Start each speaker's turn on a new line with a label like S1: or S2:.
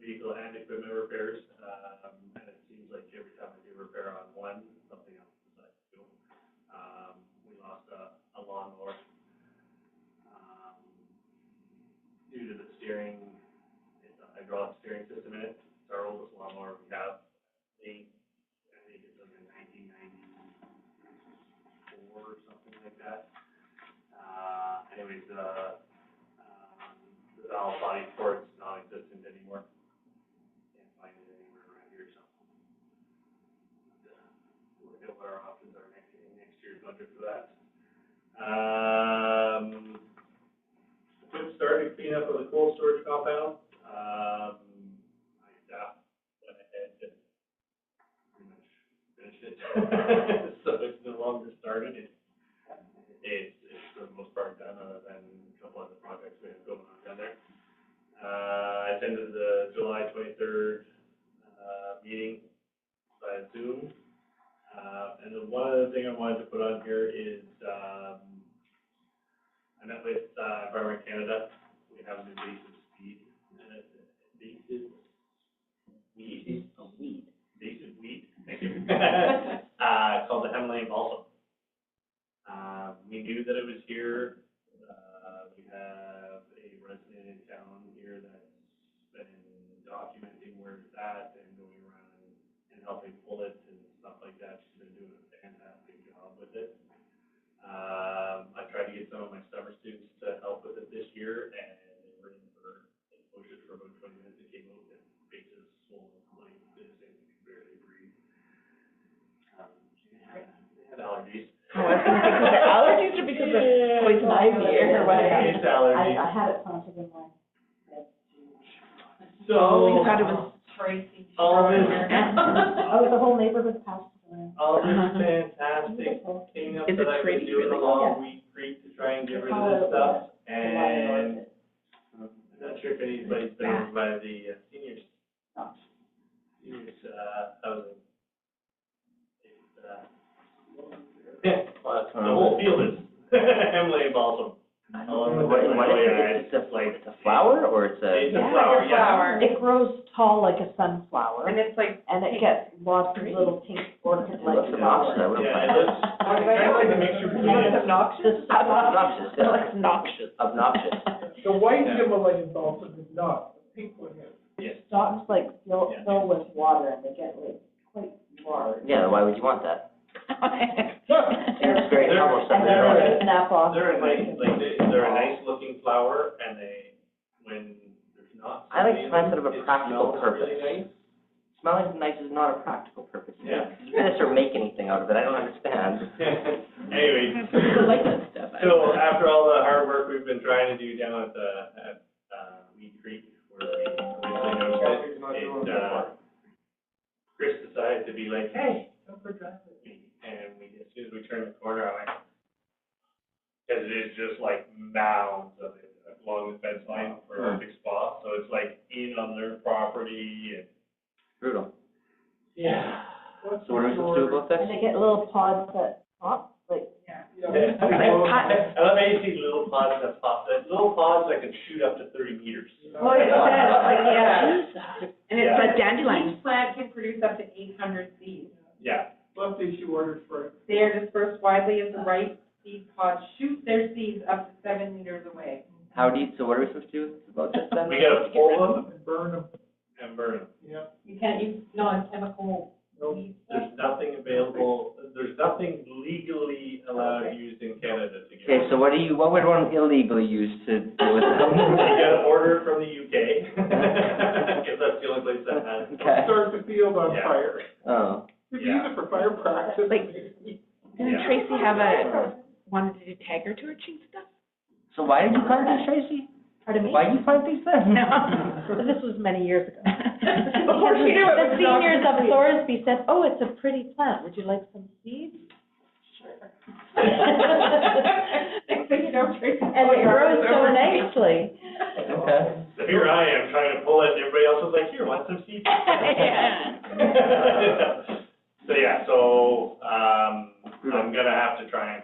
S1: diesel um, and equipment repairs, um, and it seems like every time we do repair on one, something else is like, you know. Um, we lost a, a lawnmower, um, due to the steering, it's a hydraulic steering system in it, it's our oldest lawnmower we have. They, I think it's like a nineteen ninety-four or something like that. Uh, anyways, uh, um, the valve body for it's non-existent anymore. Can't find it anywhere around here, so. Look at what our options are next, in next year's budget for that. Um, Jim started cleanup of the coal storage compound. Um, my staff went ahead and pretty much finished it. So it's no longer started, it's it's, it's for the most part done, other than a couple other projects we have going on down there. Uh, I attended the July twenty-third, uh, meeting via Zoom. Uh, and then one other thing I wanted to put on here is, um, I met with, uh, Environment Canada, we have an invasive speed, uh, invasive weed. A weed. Invasive weed, thank you. Uh, called the Himalayan balsam. Uh, we knew that it was here. Uh, we have a resident in town here that's been documenting where it's at and going around and, and helping pull it and stuff like that. She's been doing a fantastic job with it. Um, I tried to get some of my summer students to help with it this year and they were in for exposure for about twenty minutes. It came out with their faces swollen like this and could barely breathe. Um, they had, they had allergies.
S2: Oh, Allergies are because of poison ivy or whatever.
S1: It's allergies.
S3: I had it planted in my.
S1: So.
S4: Oh,
S1: uh,
S2: We thought it was
S3: Tracy.
S1: All this,
S3: Oh, the whole neighborhood passed away.
S1: all this fantastic
S3: Beautiful.
S1: cleanup
S2: Is
S1: that
S2: it
S1: I've been
S2: pretty, really?
S1: doing
S3: Yeah.
S1: along Wheat Creek to try and get rid of this stuff. And I'm not sure if anybody's been over by the uh, seniors, seniors, uh, housing. It's, uh, well,
S5: Um,
S1: The whole field is Emily Balsam.
S5: I
S1: Oh, the
S5: don't know, what, what
S1: Himalayan ice.
S5: is it, it's a, it's a flower or it's a?
S1: It's a flower, yeah.
S3: It grows tall like a sunflower,
S2: And it's like,
S3: and it gets lots of little pink
S5: Well,
S3: orchid-like
S5: that's
S3: flowers.
S5: obnoxious, I would've
S1: Yeah,
S5: planned.
S1: it looks- kind of like a mixture between.
S2: it's obnoxious?
S3: This-
S5: Obnoxious,
S2: It's
S5: yeah.
S2: obnoxious.
S5: Obnoxious.
S6: The white
S1: Yeah.
S6: Himalayan balsam is not, the pink one is.
S1: Yes.
S3: Stalks like fill,
S1: Yeah.
S3: fill with water, and they get like quite large.
S5: Yeah, why would you want that? It's
S3: They're-
S5: very almost
S3: And
S5: something wrong.
S3: then they snap off.
S1: They're a nice, like, they- they're a nice looking flower and they, when there's not.
S5: I
S1: somebody
S5: like
S1: in
S5: plants that have
S1: them,
S5: a
S1: it
S5: practical
S1: smells really
S5: purpose.
S1: nice.
S5: Smelling nice is not a practical purpose. You
S1: Yeah.
S5: can't Finish or make anything out of it, I don't understand.
S1: Anyway,
S2: I like that stuff. I
S1: so
S2: don't
S1: um,
S2: know.
S1: after all the hard work we've been trying to do down at the, at, uh, Weed Creek, where we originally noticed it, it, uh, Chris decided to be like, hey, come for a drive with me. And we, as soon as we turned the corner, I went, cause it is just like mounds of it along the fence line for
S6: Hmm.
S1: a big spot. So it's like in on their property and
S5: Brutal.
S1: Yeah.
S6: What's
S5: So what are we supposed to do about this?
S3: And they get little pods that pop, like,
S6: Yeah.
S1: I love how you see little pods that pop, that little pods that can shoot up to thirty meters.
S2: Oh, yeah, like, yeah. And it's
S1: Yeah.
S2: a dandelion.
S4: plant can produce up to eight hundred seeds.
S1: Yeah,
S6: Left issue ordered for,
S4: They are dispersed widely as the ripe seed pods shoot their seeds up to seven meters away.
S5: How do you, so what are we supposed to do about this then?
S1: we gotta pull them
S6: and burn them,
S1: and burn them.
S6: yeah,
S4: You can't use non-chemical
S6: no,
S4: seeds.
S1: There's nothing available, there's nothing legally allowed used in Canada to get.
S5: Okay, so what do you, what would one illegally use to deal with
S1: You
S5: them?
S1: gotta order it from the UK, cause that's the only place that has. it.
S5: Okay,
S6: start the field on
S1: Yeah.
S6: fire.
S5: oh.
S6: We use it for fire practice.
S2: Like- Didn't
S1: Yeah.
S2: Tracy have a, wanted to do tiger torching stuff?
S5: So why did you plant these, Tracy?
S3: pardon me?
S5: Why do you plant these then?
S3: But This was many years ago.
S2: Before she knew it
S3: The
S2: was
S3: seniors
S2: not-
S3: of Thorsby said, oh, it's a pretty plant, would you like some seeds?
S4: Next thing you know, Tracy.
S3: And it grows so nicely.
S5: Okay.
S1: So here I am trying to pull it, and everybody else was like, here, want some seeds?
S2: Yeah.
S1: So, yeah, so, um, I'm gonna have to try and uh, Um,